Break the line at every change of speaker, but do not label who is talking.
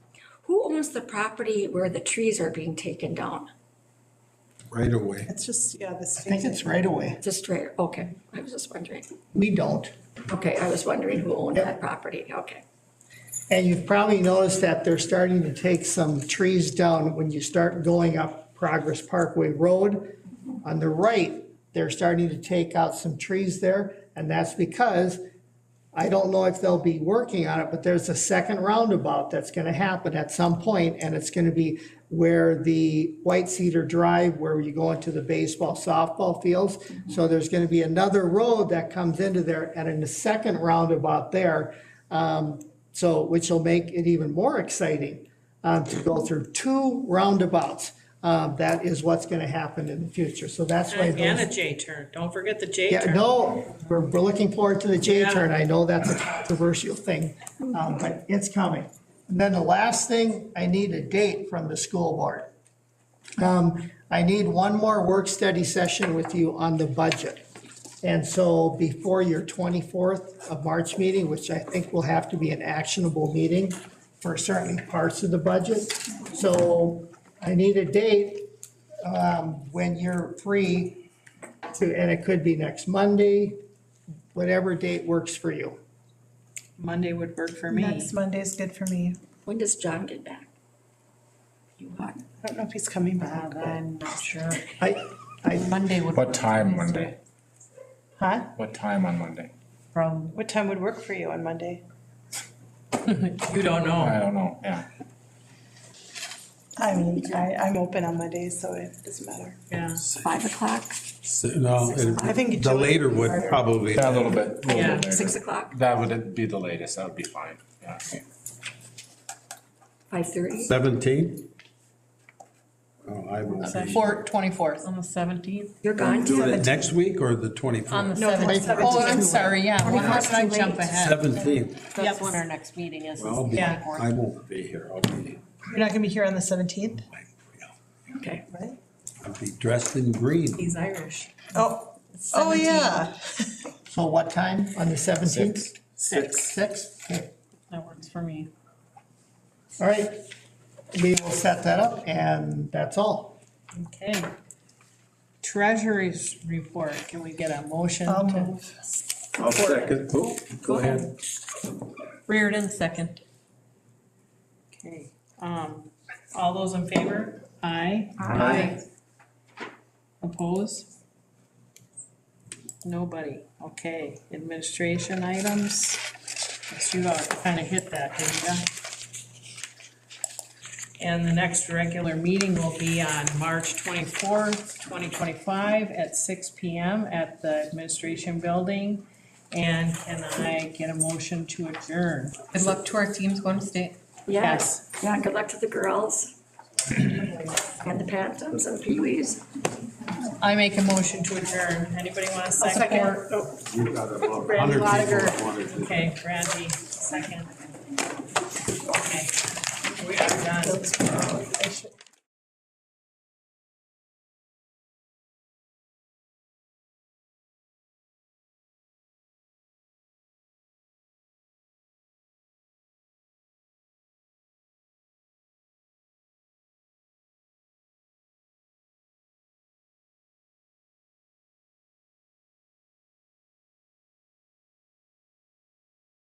who owns the property where the trees are being taken down?
right away.
It's just, yeah, the
I think
state.
it's right away.
It's a straight, okay, I was just wondering.
We don't.
Okay, I was wondering who owned that property, okay.
And you've probably noticed that they're starting to take some trees down when you start going up Progress Parkway Road. On the right, they're starting to take out some trees there, and that's because, I don't know if they'll be working on it, but there's a second roundabout that's gonna happen at some point, and it's gonna be where the White Cedar Drive, where you go into the baseball, softball fields. So there's gonna be another road that comes into there, and in the second roundabout there, um, so, which will make it even more exciting um, to go through two roundabouts. Um, That is what's going to happen in the future. So that's why
And a
those.
J turn, don't forget the J
Yeah,
turn.
no, we're, we're looking forward to the J
Yeah.
turn. I know that's a controversial thing, um, but it's coming. And then the last thing, I need a date from the school board. Um, I need one more work study session with you on the budget. And so before your 24th of March meeting, which I think will have to be an actionable meeting for certain parts of the budget. So I need a date um, when you're free to, and it could be next Monday, whatever date works for you.
Monday would work for me.
Next Monday's good for me.
When does John get back? You are,
I don't know if he's coming back.
God, Uh, I'm not sure.
I, I,
Monday would.
What
work for
time
me.
Monday?
Huh?
What time on Monday?
From,
What time would work for you on Monday?
You don't know.
I don't know, yeah.
I mean, I, I'm open on Mondays, so it doesn't matter.
Yeah,
five o'clock,
So, No, it-
I think it
the
should-
later would probably,
Yeah, a little bit, a little
Yeah,
bit later.
six o'clock,
That would be the latest, that would be fine, yeah.
five thirty?
seventeen? Oh, I will be.
Four, twenty-fourth.
on the seventeenth?
You're gone
Do
too?
it next week or the
On the
twenty-fourth?
seventeenth. Oh, I'm sorry, yeah. Well, how
21st
can I
too
jump
late.
ahead?
Seventeenth,
That's when our next meeting is. is
well, I'll
the
be, I
24th.
won't be here, I'll be,
You're not gonna be here on the seventeenth,
Okay,
right?
I'll be dressed in green.
he's Irish.
Oh, oh, yeah.
so what time on the 17th?
Six.
Six? Okay.
That works for me.
All right, we will set that up and that's all.
Okay. Treasury's report, can we get a motion
I'll
to?
move.
I'll second. Oh, Go ahead.
Reardon, second.
Okay, um, all those in favor? Aye.
Aye.
Oppose? Nobody, okay, administration items, Yes, you kinda hit that, didn't ya? And the next regular meeting will be on March twenty-fourth, twenty twenty-five at six P M at the administration building. And can I get a motion to adjourn?
Good luck to our teams going to state.
yeah, yeah, good luck to the girls. And the Pantums and Pee Wees.
I make a motion to adjourn. Anybody want a second? Oh,
You've got about a hundred
Randy
people
Lotiger.
that wanted to-
Okay, Randy, second. Okay. We are done.